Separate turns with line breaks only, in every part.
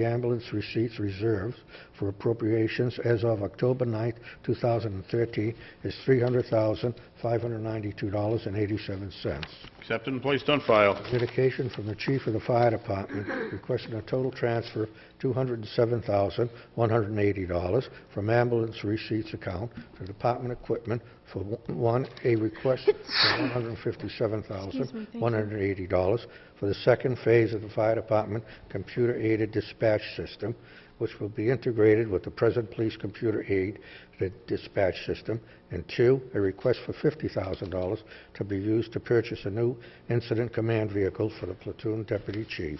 The ambulance receipts reserves for appropriations as of October 9, 2013 is $300,592.87.
Accepted and placed on file.
Communication from the chief of the fire department requesting a total transfer of $207,180 from ambulance receipts account to department equipment for, one, a request for $157,180 for the second phase of the fire department computer-aided dispatch system, which will be integrated with the present police computer aid the dispatch system, and two, a request for $50,000 to be used to purchase a new incident command vehicle for the platoon deputy chief.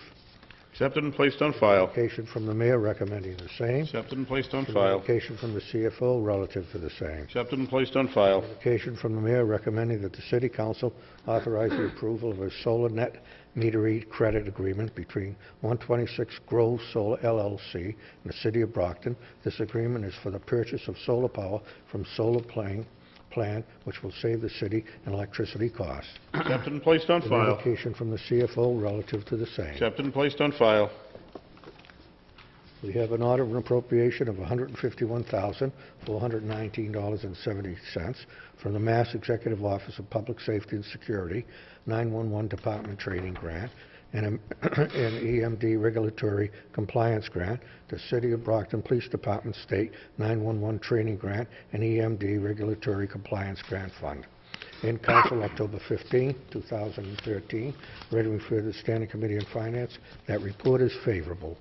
Accepted and placed on file.
Application from the mayor recommending the same.
Accepted and placed on file.
Communication from the CFO relative to the same.
Accepted and placed on file.
Communication from the mayor recommending that the city council authorize the approval of a solar net meter read credit agreement between 126 Grove Solar LLC and the city of Brockton. This agreement is for the purchase of solar power from solar plan, plant, which will save the city in electricity costs.
Accepted and placed on file.
Communication from the CFO relative to the same.
Accepted and placed on file.
We have an order of an appropriation of $151,419.70 from the Mass Executive Office of Public Safety and Security 911 Department Training Grant and an EMD Regulatory Compliance Grant, the City of Brockton Police Department State 911 Training Grant, and EMD Regulatory Compliance Grant Fund in council October 15, 2013. Ready to refer to the Standing Committee on Finance. That report is favorable.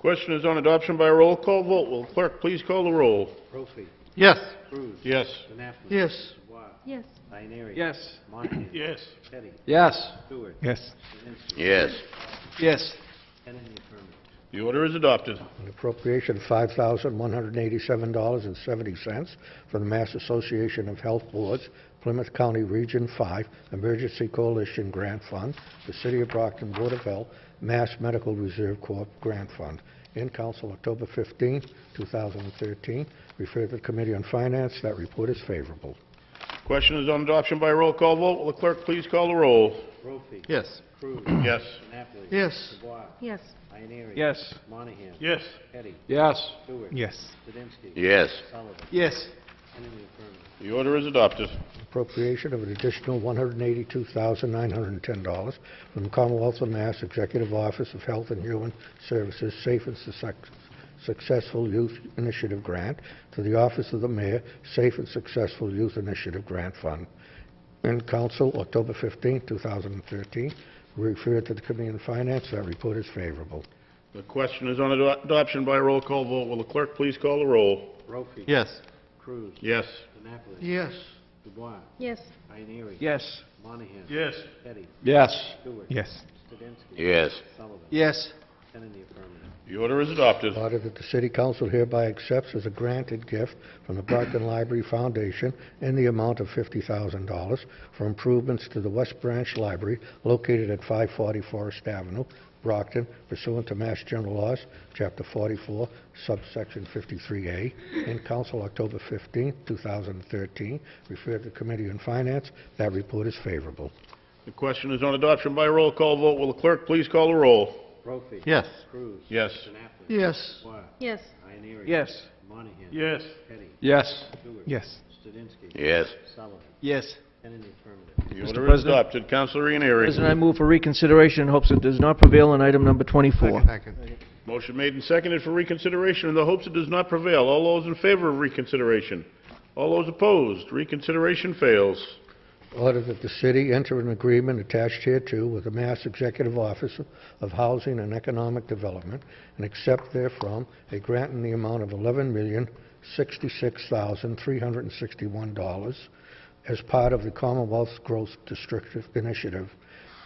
Question is on adoption by roll call vote. Will clerk please call the roll?
Brophy,
Yes.
Cruz,
Yes.
Knappman.
Yes.
Dubois,
Yes.
Ioneary.
Yes.
Monahan.
Yes.
Teddy,
Yes.
Stewart.
Yes.
Kaminsky.
Yes.
Yes.
Ten in the affirmative.
The order is adopted.
An appropriation of $5,187.70 from the Mass Association of Health Boards, Plymouth County Region 5 Emergency Coalition Grant Fund, the City of Brockton Board of Health, Mass Medical Reserve Corp. Grant Fund. In council October 15, 2013. Refer to the Committee on Finance. That report is favorable.
Question is on adoption by roll call vote. Will the clerk please call the roll?
Brophy,
Yes.
Cruz,
Yes.
Knappman.
Yes.
Dubois,
Yes.
Ioneary.
Yes.
Monahan.
Yes.
Teddy,
Yes.
Stewart.
Yes.
Kaminsky.
Yes.
Sullivan,
Yes.
ten in the affirmative.
The order is adopted.
appropriation of an additional $182,910 from Commonwealth of Mass Executive Office of Health and Human Services Safe and Success- Successful Youth Initiative Grant to the Office of the Mayor Safe and Successful Youth Initiative Grant Fund. In council, October 15, 2013, referred to the Committee on Finance. That report is favorable.
The question is on ado- adoption by roll call vote. Will the clerk please call the roll?
Brophy.
Yes.
Cruz,
Yes.
Knappman.
Yes.
Dubois,
Yes.
Ioneary.
Yes.
Monahan.
Yes.
Teddy,
Yes.
Stewart.
Yes.
Kaminsky.
Yes.
Sullivan,
Yes.
ten in the affirmative.
The order is adopted.
Order that the city council hereby accepts as a granted gift from the Brockton Library Foundation in the amount of $50,000 for improvements to the West Branch Library located at 540 Forest Avenue, Brockton, pursuant to Mass General Laws, Chapter 44, subsection 53A, in council October 15, 2013, referred to Committee on Finance. That report is favorable.
The question is on adoption by roll call vote. Will the clerk please call the roll?
Brophy.
Yes.
Cruz.
Yes.
Knappman.
Yes.
Dubois,
Yes.
Ioneary.
Yes.
Monahan.
Yes.
Teddy,
Yes.
Stewart. Studinsky.
Yes.
Sullivan,
Yes.
ten in the affirmative.
The
Mr.
order is
President?
adopted. Counselor Ianieri.
President, I move for reconsideration in hopes it does not prevail on item number 24.
Motion made and seconded for reconsideration in the hopes it does not prevail. All those in favor of reconsideration? All those opposed? Reconsideration fails.
Order that the city enter an agreement attached hereto with the Mass Executive Office of Housing and Economic Development and accept therefrom a grant in the amount of $11,066,361 as part of the Commonwealth's Growth District Initiative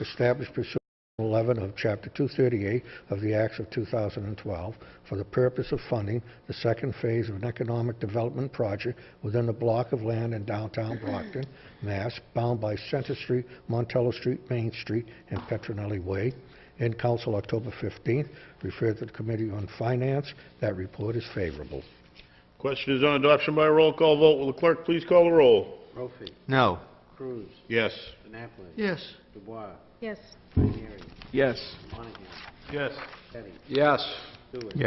established pursuant to 11 of Chapter 238 of the Acts of 2012 for the purpose of funding the second phase of an economic development project within the block of land in downtown Brockton, Mass, bound by Center Street, Montello Street, Main Street, and Petronelli Way. In council October 15th, referred to the Committee on Finance. That report is favorable.
Question is on adoption by roll call vote. Will the clerk please call the roll?
Brophy,
No.
Cruz,
Yes.
Knappman.
Yes.
Dubois,
Yes.
Ioneary,
Yes.
Monahan,
Yes.
Teddy,
Yes.
Stewart.